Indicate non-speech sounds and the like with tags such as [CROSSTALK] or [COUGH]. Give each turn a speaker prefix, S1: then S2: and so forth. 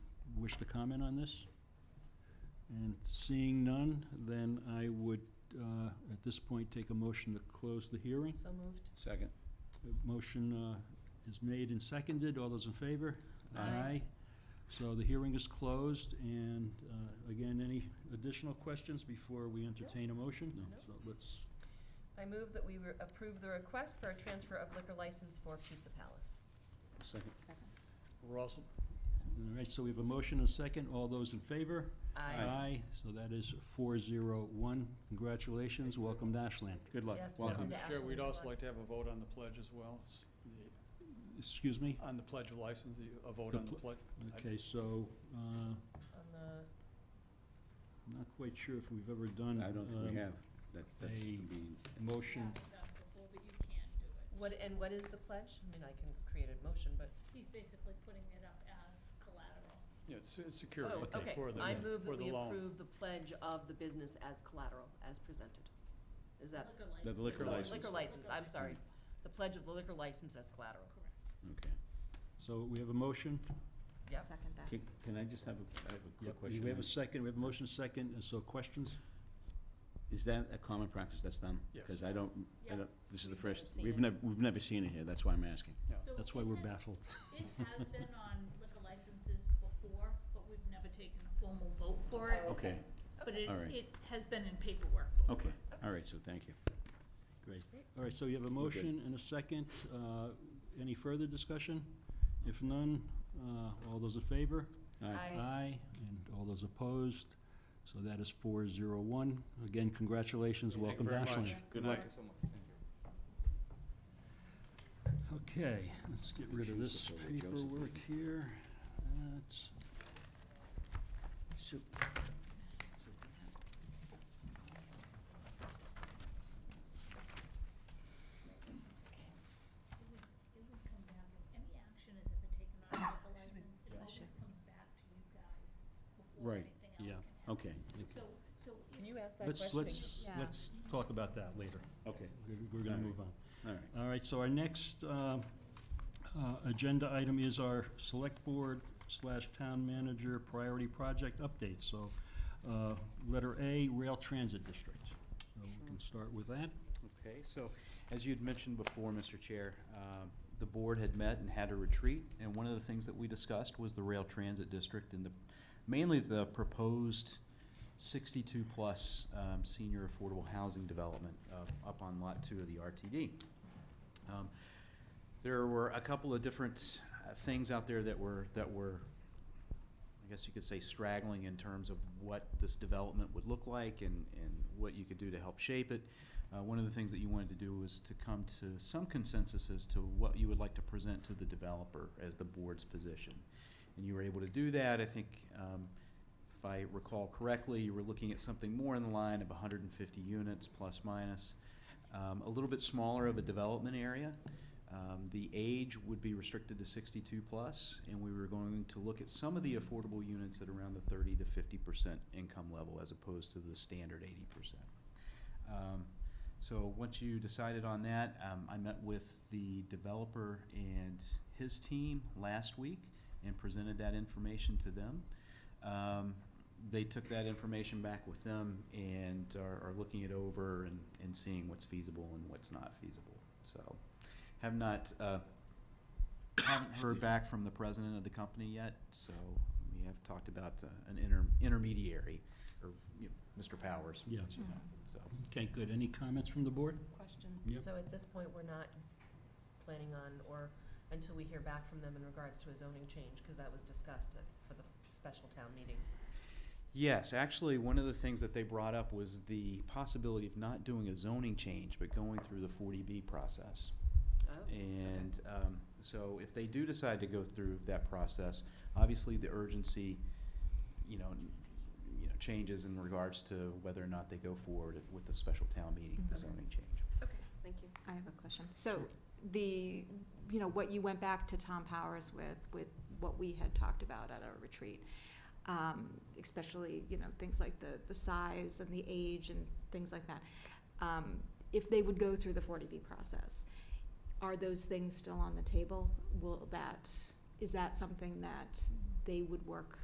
S1: wish to comment on this? And seeing none, then I would, uh, at this point, take a motion to close the hearing.
S2: So moved.
S3: Second.
S1: A Motion uh, is made and seconded. All those in favor?
S2: Aye.
S1: So the hearing is closed, and uh, again, any additional questions before we entertain a motion?
S2: No.
S1: So let's,
S2: I move that we re- approve the request for a transfer of liquor license for Pizza Palace.
S3: Second.
S4: Russell?
S1: all right, so we have a motion and a second. All those in favor?
S2: Aye.
S3: Aye.
S1: So that is four zero one. Congratulations. Welcome to Ashland.
S3: Good luck.
S2: Yes, welcome
S3: Welcome.
S2: to
S4: Chair, we'd
S2: Ashland.
S4: also like to have a vote on the pledge as well, s- the-
S1: Excuse me?
S4: on the pledge of license, the- a vote
S1: The
S4: on the
S1: pl-
S4: pledge.
S1: Okay, so, uh,
S2: On the,
S1: I'm not quite sure if we've ever done.
S3: I don't think
S1: um,
S3: we have. That, that's
S1: a-
S3: gonna be-
S1: Motion.
S2: what, and what is the pledge? I mean, I can create a motion, but,
S5: He's basically putting it up as collateral.
S4: Yeah, it's, it's security
S2: oh, okay.
S4: for the,
S2: I move
S4: for
S2: that
S4: the
S2: we
S4: loan.
S2: approve the pledge of the business as collateral, as presented. Is that?
S5: Liquor
S3: The
S5: license.
S3: liquor
S2: No,
S3: license.
S2: Liquor license, I'm sorry. The pledge of the liquor license as collateral.
S5: Correct.
S3: Okay.
S1: So we have a motion.
S2: Yep.
S6: Second that.
S3: Can, can I just have a, I have a quick question?
S1: We have a second, we have a motion second, and so questions?
S3: Is that a common practice that's done?
S4: Yes.
S3: Because I don't, I
S5: Yeah.
S3: don't, this is the
S5: We've never
S3: first,
S5: seen
S3: we've
S5: it.
S3: never, we've never seen it here. That's why I'm asking.
S5: So
S1: That's why
S5: it
S1: we're
S5: has-
S1: baffled.
S5: [LAUGHS] It has been on liquor licenses before, but we've never taken a formal vote for it.
S2: Oh,
S3: Okay,
S5: But it,
S3: All right.
S5: it has been in paperwork before.
S3: okay. All right, so thank you.
S1: Great. All right, so you have a motion and a second. Uh, Any further discussion? If none, uh, all those in favor?
S3: All right.
S2: Aye.
S1: And all those opposed? So that is four zero one. Again, congratulations,
S4: Thank you
S1: welcome to
S4: very much.
S1: Ashland.
S3: Good luck.
S1: Okay, let's get rid of
S3: Choose
S1: this
S3: the photo, Joseph.
S1: paperwork here. That's,
S3: So-
S5: It would, it would come down to, any action is ever taken on a liquor license, it always comes back to you guys before
S3: Right.
S5: anything else can
S1: Yeah.
S5: happen.
S3: Okay,
S5: So, so if
S2: Can you ask that
S1: let's,
S2: question?
S1: let's,
S6: Yeah.
S1: let's talk about that later.
S3: okay,
S1: We're- We're gonna
S3: All right.
S1: move on.
S3: all right.
S1: All right, so our next uh, uh, agenda item is our Select Board slash Town Manager Priority Project Update. So, uh, letter A, Rail Transit District. So we can start with that.
S7: Okay, so as you'd mentioned before, Mr. Chair, um, the board had met and had a retreat, and one of the things that we discussed was the rail transit district and the, mainly the proposed sixty-two-plus um, senior affordable housing development uh, up on Lot Two of the RTD. Um, There were a couple of different uh, things out there that were, that were I guess you could say straggling in terms of what this development would look like and, and what you could do to help shape it. Uh, one of the things that you wanted to do was to come to some consensus as to what you would like to present to the developer as the board's position. And you were able to do that, I think, um, if I recall correctly, you were looking at something more in the line of hundred and fifty units plus minus. Um, a little bit smaller of a development area, um, the age would be restricted to sixty-two plus, and we were going to look at some of the affordable units at around the thirty to fifty percent income level as opposed to the standard eighty percent. Um, so once you decided on that, um, I met with the developer and his team last week and presented that information to them. Um, they took that information back with them and are, are looking it over and, and seeing what's feasible and what's not feasible. So, have not, uh, haven't heard back from the president of the company yet, so we have talked about uh, an inter- intermediary, or, you know, Mr. Powers.
S1: Yeah.
S7: as you know, So.
S1: Okay, good. Any comments from the board?
S6: Question.
S1: Yep.
S2: So at this point, we're not planning on, or until we hear back from them in regards to a zoning change, because that was discussed at- for the special town meeting.
S7: Yes, actually, one of the things that they brought up was the possibility of not doing a zoning change, but going through the forty B process. Oh. And um, so if they do decide to go through that process, obviously the urgency, you know, n- you know, changes in regards to whether or not they go forward with the special town meeting, the
S2: Mhm.
S7: zoning change.
S2: Okay, thank you.
S6: I have a question. So the, you know, what you went back to Tom Powers with, with what we had talked about at our retreat, um, especially, you know, things like the, the size and the age and things like that. Um, if they would go through the forty B process, are those things still on the table? Will that, is that something that they would work